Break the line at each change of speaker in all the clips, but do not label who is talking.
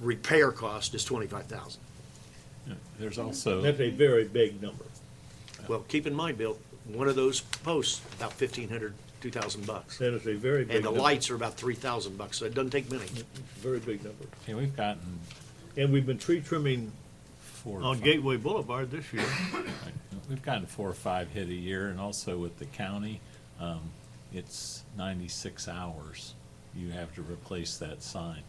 repair cost is twenty-five thousand.
There's also,
That's a very big number.
Well, keep in mind, Bill, one of those posts, about fifteen hundred, two thousand bucks.
That is a very big
And the
number.
lights are about three thousand bucks, so it doesn't take many.
Very big number.
yeah, we've gotten
And we've been tree trimming
four. or
on
five-
Gateway Boulevard this year.
We've gotten four or five hit a year, and also with the county, um, it's ninety-six hours. You have to replace that sign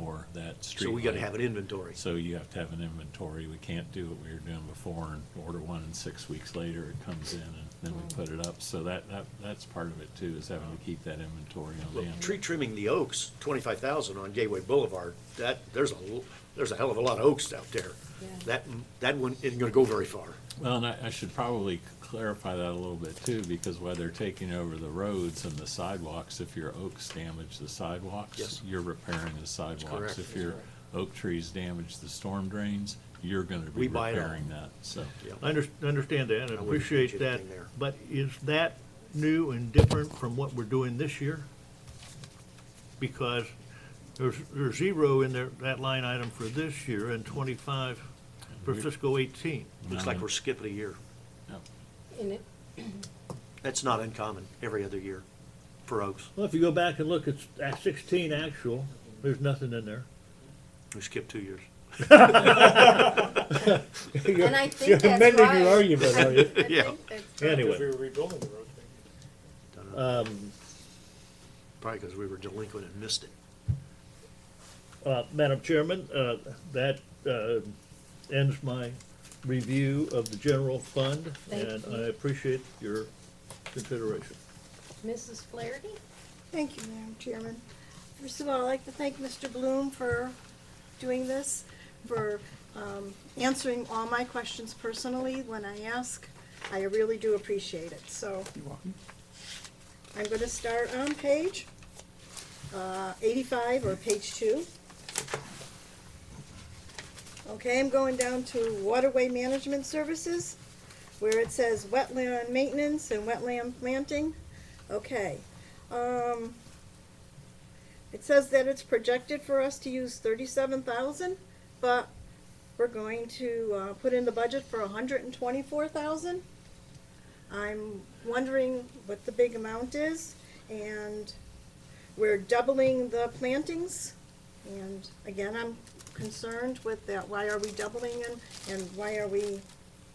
or that street.
So we gotta
light.
have an inventory.
So you have to have an inventory. We can't do what we were doing before and order one and six weeks later it comes in and then we
Mm.
put it up. So that, that, that's part of it too, is having to keep that inventory on
Well,
hand.
tree trimming the oaks, twenty-five thousand on Gateway Boulevard, that, there's a, l- there's a hell of a lot of oaks out there.
Yeah.
That, that one isn't gonna go very far.
Well, and I, I should probably clarify that a little bit too, because while they're taking over the roads and the sidewalks, if your oaks damage the sidewalks,
Yes.
you're repairing the sidewalks.
correct.
If your oak trees damage the storm drains, you're gonna
We
be
buy it all.
repairing that, so.
I under- understand that and
I wouldn't change
appreciate that,
anything there.
but is that new and different from what we're doing this year? Because there's, there's zero in there, that line item for this year and twenty-five for
Mm-hmm.
fiscal eighteen.
Looks like we're skipping a year.
In it,
That's not uncommon, every other year for oaks.
Well, if you go back and look, it's at sixteen actual, there's nothing in there.
We skipped two years.
and I think that's
You're
right.
amending your argument, are you?
I think
Yeah.
that's right.
Anyway.
Because we were rebuilding the road.
Probably because we were delinquent and missed it.
Uh, Madam Chairman, uh, that uh, ends my review of the general fund,
Thank
and
you.
I appreciate your consideration.
Mrs. Flaherty?
Thank you, Madam Chairman. First of all, I'd like to thank Mr. Bloom for doing this, for um, answering all my questions personally when I ask. I really do appreciate it, so. You're welcome. I'm going to start on page uh, 85, or page 2. Okay, I'm going down to Waterway Management Services, where it says wetland maintenance and wetland planting. Okay. Um, it says that it's projected for us to use thirty-seven thousand, but we're going to, uh, put in the budget for hundred and twenty-four thousand. I'm wondering what the big amount is, and we're doubling the plantings. And again, I'm concerned with that, why are we doubling them, and why are we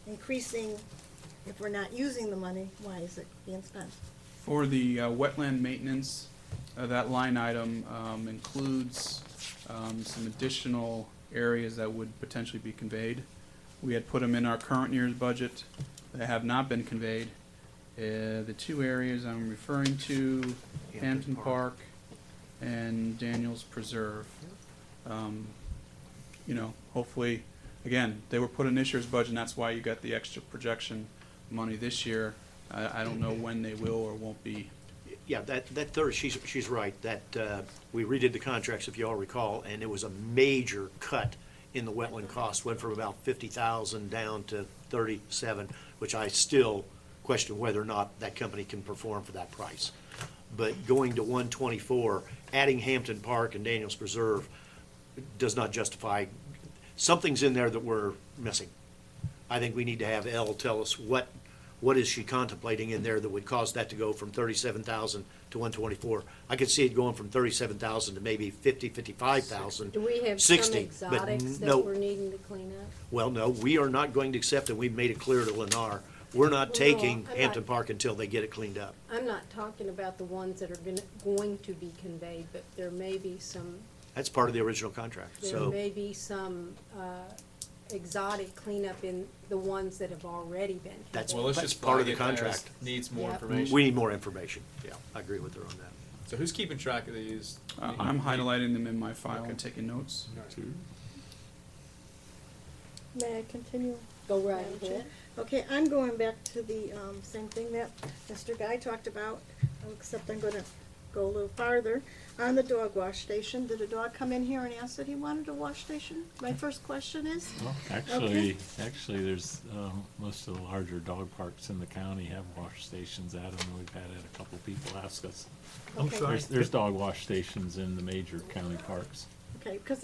increasing if we're not using the money, why is it being spent?
For the uh, wetland maintenance, uh, that line item um, includes um, some additional areas that would potentially be conveyed. We had put them in our current year's budget that have not been conveyed. Uh, The two areas I'm referring to, Hampton Park and Daniels Preserve. Um, You know, hopefully, again, they were put in this year's budget, and that's why you got the extra projection money this year. I, I don't know when they will or won't be.
Yeah, that, that third, she's, she's right, that, uh, we redid the contracts, if you all recall, and it was a major cut in the wetland cost, went from about fifty thousand down to thirty-seven, which I still question whether or not that company can perform for that price. But going to one twenty-four, adding Hampton Park and Daniels Preserve does not justify, something's in there that we're missing. I think we need to have Elle tell us what, what is she contemplating in there that would cause that to go from thirty-seven thousand to one twenty-four? I could see it going from thirty-seven thousand to maybe fifty, fifty-five thousand.
Do we have some
60, but
exotics
no.
that we're needing to clean up?
Well, no, we are not going to accept, and we've made it clear to Lennar, we're not
no,
taking
I'm not-
Hampton Park until they get it cleaned up.
I'm not talking about the ones that are gonna, going to be conveyed, but there may be some,
That's part of the original contract,
there
so,
may be some, uh, exotic cleanup in the ones that have already been. conveyed.
That's-
Well, let's
But
just
part of
flag
the
it as
contract.
Needs more
Yeah.
information.
we need more information. Yeah, I agree with her on that.
So who's keeping track of these?
Uh, I'm highlighting them in my file and taking notes.
May I continue?
Go right
Madam Chair?
ahead.
Okay, I'm going back to the um, same thing that Mr. Guy talked about, except I'm gonna go a little farther. On the dog wash station, did a dog come in here and ask that he wanted a wash station? My first question is,
Well, Actually, actually, there's, um, most of the larger dog parks in the county have wash stations at them. We've had a couple people ask us.
I'm
Okay.
sorry.
There's, there's dog wash stations in the major county parks.
okay, because